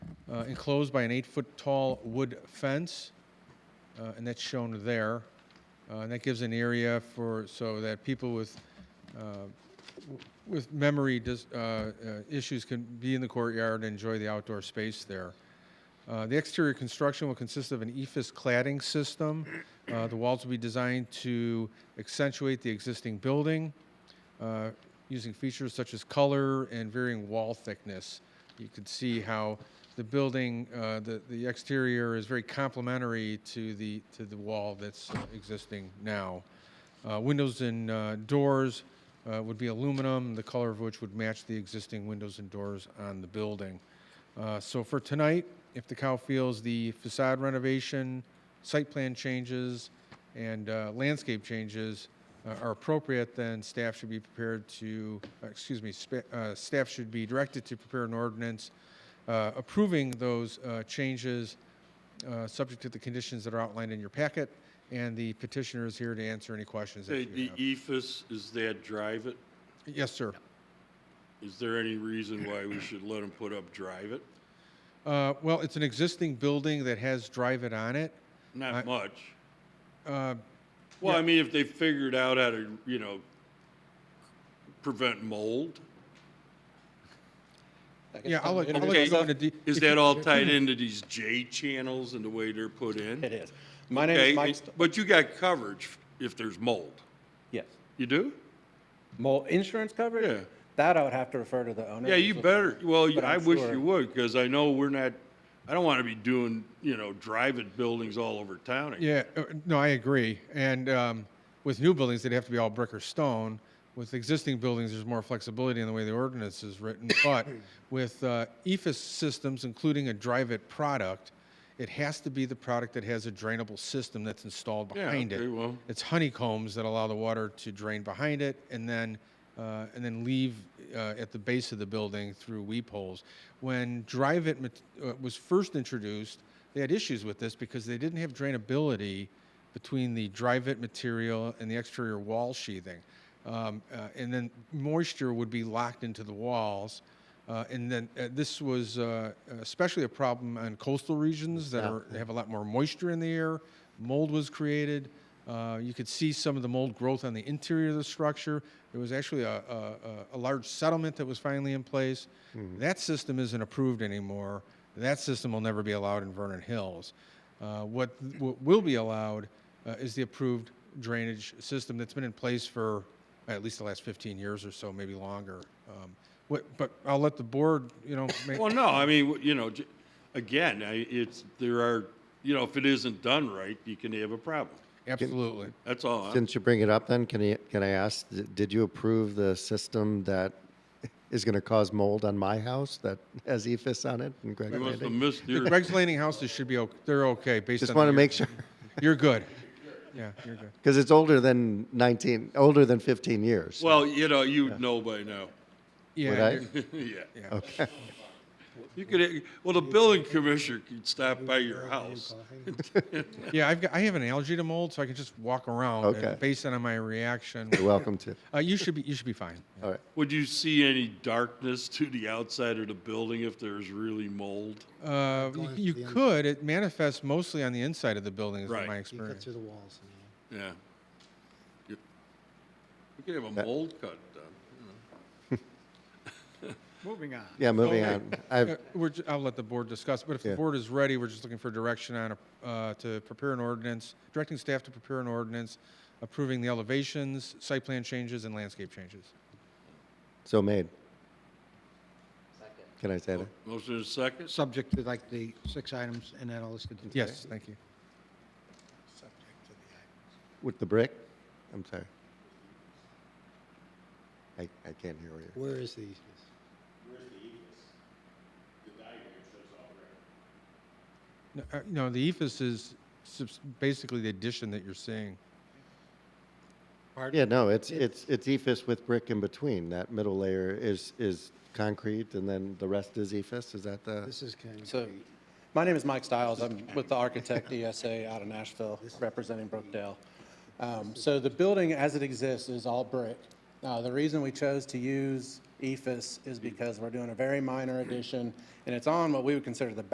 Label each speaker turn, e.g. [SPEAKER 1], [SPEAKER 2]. [SPEAKER 1] uh, enclosed by an eight-foot-tall wood fence, uh, and that's shown there. Uh, And that gives an area for, so that people with, uh, w- with memory dis- uh, uh, issues can be in the courtyard and enjoy the outdoor space there. Uh, The exterior construction will consist of an E EFIS cladding system. Uh, The walls will be designed to accentuate the existing building uh, using features such as color and varying wall thickness. You can see how the building, uh, the the exterior is very complementary to the, to the wall that's uh, existing now. Uh, Windows and uh, doors uh, would be aluminum, the color of which would match the existing windows and doors on the building. Uh, So for tonight, if the cow feels the facade renovation, site plan changes, and uh, landscape changes uh, are appropriate, then staff should be prepared to, uh, excuse me, spa- uh, staff should be directed to prepare an ordinance uh, approving those uh, changes, uh, subject to the conditions that are outlined in your packet, and the petitioner is here to answer any questions
[SPEAKER 2] Hey,
[SPEAKER 1] that you
[SPEAKER 2] the E
[SPEAKER 1] have.
[SPEAKER 2] EFS, is that drive it?
[SPEAKER 1] Yes, sir.
[SPEAKER 2] Is there any reason why we should let them put up drive it?
[SPEAKER 1] Uh, Well, it's an existing building that has Drive It on it. I-
[SPEAKER 2] Not much.
[SPEAKER 1] Uh,
[SPEAKER 2] Well, I mean, if they figured out how to, you know, prevent mold.
[SPEAKER 1] Yeah, I'll let, I'll let
[SPEAKER 2] Okay,
[SPEAKER 1] you go into de-
[SPEAKER 2] Is
[SPEAKER 1] if you-
[SPEAKER 2] that all tied into these J channels and the way they're put in?
[SPEAKER 3] It is. My name
[SPEAKER 2] Okay,
[SPEAKER 3] is Mike.
[SPEAKER 2] it-
[SPEAKER 3] St-
[SPEAKER 2] But you got coverage if there's mold.
[SPEAKER 3] yes.
[SPEAKER 2] You do?
[SPEAKER 3] Mold insurance coverage?
[SPEAKER 2] Yeah.
[SPEAKER 3] That I would have to refer to the owner.
[SPEAKER 2] Yeah, you better, well,
[SPEAKER 3] But
[SPEAKER 2] I
[SPEAKER 3] I'm
[SPEAKER 2] wish
[SPEAKER 3] sure-
[SPEAKER 2] you would, because I know we're not, I don't want to be doing, you know, drive it buildings all over town. again.
[SPEAKER 1] Yeah, uh, no, I agree. And um, with new buildings, they'd have to be all brick or stone. With existing buildings, there's more flexibility in the way the ordinance is written. But with uh, EFS systems, including a drive-it product, it has to be the product that has a drainable system that's installed
[SPEAKER 2] Yeah,
[SPEAKER 1] behind
[SPEAKER 2] okay,
[SPEAKER 1] it.
[SPEAKER 2] well-
[SPEAKER 1] It's honeycombs that allow the water to drain behind it and then, uh, and then leave uh, at the base of the building through weep holes. When Drive It mat- uh, was first introduced, they had issues with this because they didn't have drainability between the Drive It material and the exterior wall sheathing. Um, uh, and then moisture would be locked into the walls. Uh, and then uh, this was uh, especially a problem on coastal regions that are, have a lot more moisture in the air. Mold was created. Uh, you could see some of the mold growth on the interior of the structure. There was actually a, a, a- a large settlement that was finally in place. That system isn't approved anymore. That system will never be allowed in Vernon Hills. Uh, what, what will be allowed uh, is the approved drainage system that's been in place for at least the last 15 years or so, maybe longer. Um, what, but I'll let the board, you know, make,
[SPEAKER 2] Well, no, I mean, you know, j- again, I, it's, there are, you know, if it isn't done right, you can have a problem.
[SPEAKER 1] absolutely.
[SPEAKER 2] That's all. I'm-
[SPEAKER 4] Since you bring it up, then can I can I ask? d- Did you approve the system that is going to cause mold on my house that has E EFIS on it and Greg
[SPEAKER 2] You must have
[SPEAKER 4] Landing?
[SPEAKER 2] missed
[SPEAKER 1] The
[SPEAKER 2] your,
[SPEAKER 1] Greg's Landing houses should be, okay. they're okay based on.
[SPEAKER 4] Just
[SPEAKER 1] the
[SPEAKER 4] want to
[SPEAKER 1] year.
[SPEAKER 4] make sure
[SPEAKER 1] You're good. Yeah, you're good.
[SPEAKER 4] because it's older than 19, older than 15 years.
[SPEAKER 2] well, you know, you'd know by now.
[SPEAKER 4] Would
[SPEAKER 1] Yeah,
[SPEAKER 4] I?
[SPEAKER 1] you're-
[SPEAKER 2] Yeah. You could, eh, well, the building commissioner could stop by your house.
[SPEAKER 1] yeah, I've got, I have an allergy to mold, so I can just walk around. and
[SPEAKER 4] Okay.
[SPEAKER 1] Based on my reaction,
[SPEAKER 4] You're welcome to.
[SPEAKER 1] uh, you should be, you should be fine.
[SPEAKER 4] All right.
[SPEAKER 2] Would you see any darkness to the outside of the building if there's really mold?
[SPEAKER 1] Uh, you- you could, it manifests mostly on the inside of the building, is
[SPEAKER 2] Right.
[SPEAKER 1] my
[SPEAKER 2] You
[SPEAKER 5] You cut
[SPEAKER 1] experience.
[SPEAKER 5] through the walls. and all.
[SPEAKER 2] Yeah. You- We could have a mold cut done.
[SPEAKER 4] Yeah, moving
[SPEAKER 2] Okay.
[SPEAKER 4] on. I've,
[SPEAKER 1] Uh, We're, ju- I'll let the board discuss, but if the
[SPEAKER 4] Yeah.
[SPEAKER 1] board is ready, we're just looking for direction on, a- uh, to prepare an ordinance, directing staff to prepare an ordinance, approving the elevations, site plan changes, and landscape changes.
[SPEAKER 4] so made. Can I say that?
[SPEAKER 2] Motion is second?
[SPEAKER 6] subject to like the six items and then I'll list it.
[SPEAKER 1] Yes, thank you.
[SPEAKER 4] With the brick? I'm sorry. I, I can't hear you.
[SPEAKER 5] Where is the easement?
[SPEAKER 1] No, uh, No, the EFS is subs- basically the addition that you're seeing.
[SPEAKER 4] Yeah, no, it's, it's, it's EFS with brick in between. That middle layer is, is concrete and then the rest is EFS? Is that the?
[SPEAKER 5] This is kind of,
[SPEAKER 3] So, my name is Mike Stiles. I'm with the Architect ESA out of Nashville, representing Brookdale. Um, So the building as it exists is all brick. Uh, The reason we chose to E use EFS is because we're doing a very minor addition, and it's on what we would consider the